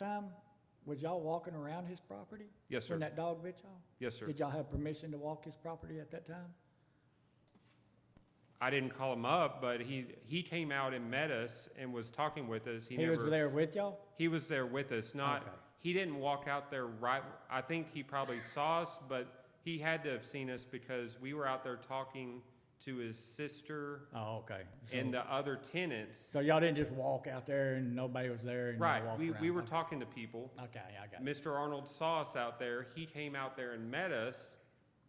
time, was y'all walking around his property? Yes, When sir. that dog bit y'all? Yes, sir. Did y'all have permission to walk his property at that time? I didn't call him up, but he, he came out and met us and was talking with us. He He was never, there with y'all? he was there with us, not, Okay. he didn't walk out there right, I think he probably saw us, but he had to have seen us because we were out there talking to his sister Oh, okay. So- and the other tenants. So y'all didn't just walk out there and nobody was there and y'all Right, walked we, around? we were talking to people. Okay, I got you. Mr. Arnold saw us out there, he came out there and met us,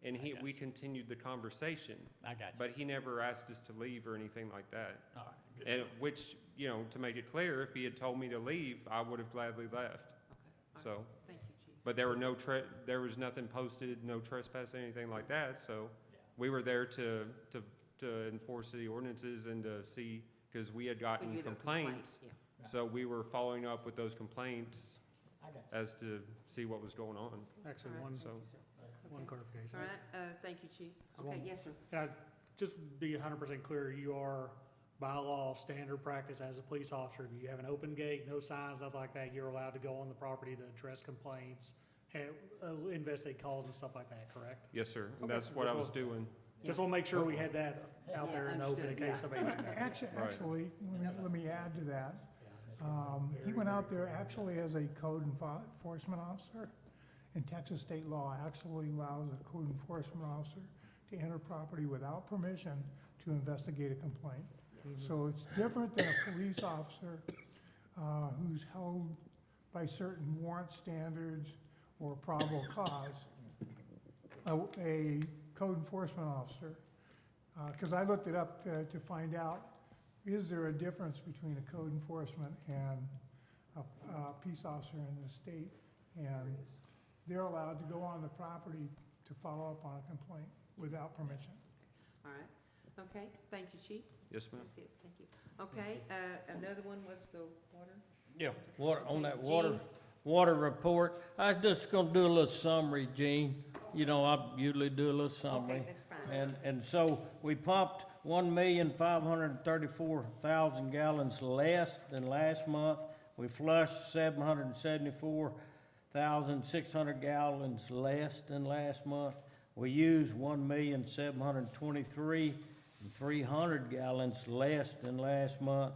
and he, got we continued the conversation. I got you. But he never asked us to leave or anything like that. All right, good. And which, you know, to make it clear, if he had told me to leave, I would have gladly left. Okay, all right. So, Thank you, Chief. but there were no tre, there was nothing posted, no trespass, anything like that, so we were there to, to, to enforce the ordinances and to see, because we had If gotten you don't complain, complaints. yeah. So we were following up with those complaints I got you. as to see what was going on. Actually, All right, one, thank you, so- sir. one Okay. clarification. All right, uh, thank you, Chief. Okay, one- yes, sir. And I, just to be hundred percent clear, you are by law, standard practice as a police officer, if you have an open gate, no signs, nothing like that, you're allowed to go on the property to address complaints, have, uh, investigate calls and stuff like that, correct? Yes, sir, and Okay. that's what I was doing. Just wanna make sure we had that out Yeah, there and open in understood, yeah. case somebody. Actu- Right. Actually, let me- let me add to that. Um, He went out there actually as a code enfo- enforcement officer. And Texas state law actually allows a code enforcement officer to enter property without permission to investigate a complaint. Mm-hmm. So it's different than a police officer uh, who's held by certain warrant standards or probable cause. A a code enforcement officer because I looked it up to, to find out, is there a difference between a code enforcement and a, a peace officer in the state? And they're allowed to go on the property to follow up on a complaint without permission. All right, okay, thank you, Chief. Yes, ma'am? That's it, thank you. Okay, uh, another one was the water. Yeah, water, on that water, Gene? water report, I was just gonna do a little summary, Gene. You know, I usually do a little summary. Okay, that's fine. um, And, and so we pumped one million five hundred and thirty-four thousand gallons less than last month. We flushed seven hundred and seventy-four thousand six hundred gallons less than last month. We used one million seven hundred and twenty-three and three hundred gallons less than last month.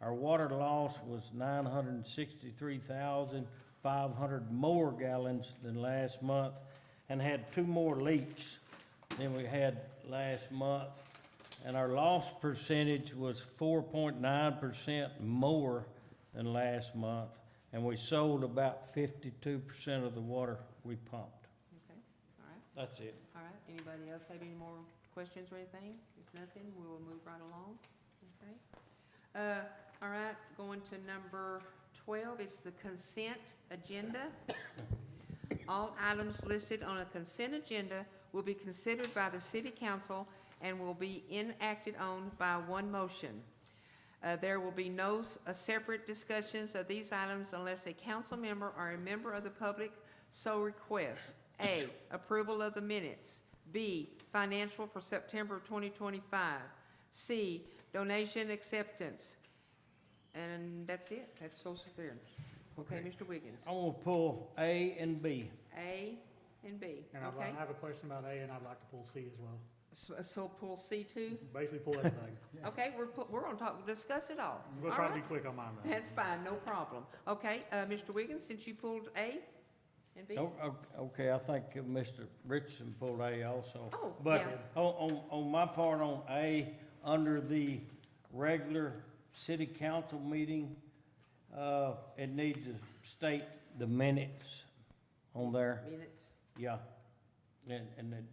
Our water loss was nine hundred and sixty-three thousand five hundred more gallons than last month and had two more leaks than we had last month. And our loss percentage was four point nine percent more than last month. And we sold about fifty-two percent of the water we pumped. Okay, all right, That's it. all right. Anybody else have any more questions or anything? If nothing, we'll move right along, okay? Uh, all right, going to number twelve, it's the consent agenda. All items listed on a consent agenda will be considered by the city council and will be enacted on by one motion. Uh, There will be no s- uh, separate discussions of these items unless a council member or a member of the public so requests. A, approval of the minutes. B, financial for September of 2025. C, donation acceptance. And that's it. That's social there. Okay, Okay. Mr. Wiggins. I'm gonna pull A and B. A and B, And I'd okay? like- I have a question about A and I'd like to pull C as well. So so pull C two? Basically pull everything. Okay, we're, pu- we're on top, discuss it all. I'm gonna All try to be right. quick on mine though. That's fine, no problem. Okay, uh, Mr. Wiggins, since you pulled A and B? Oh, o- Okay, I think uh, Mr. Richardson pulled A also. Oh, yeah. But on, on, on my part on A, under the regular city council meeting, uh, it needs to state the minutes on there, Minutes, yeah. And, and it-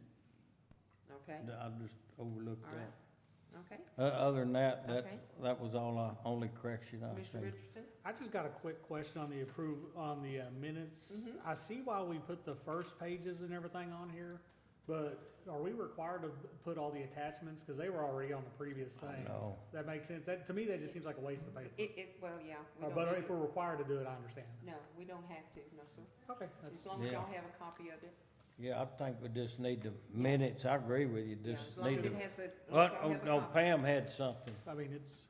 okay, I just overlooked All right. that. okay. O- Other than that, that, Okay. that was all I, only correction I Mr. made. Richardson? I just got a quick question on the approve, on the uh, minutes. Mhm. I see why we put the first pages and everything on here, but are we required to put all the attachments? Because they were already on the previous I thing. know. That makes sense. That, to me, that just seems like a waste of paper. It, it, well, yeah. we Uh, don't But need if to- we're required to do it, I understand. No, we don't have to, no, sir. Okay. As long as Yeah. y'all have a copy of it. Yeah, I think we just need the minutes, I agree with you, Yeah, just As long need as the. it has the. as long Well, as y'all oh, have a no, copy. Pam had something. I mean, it's,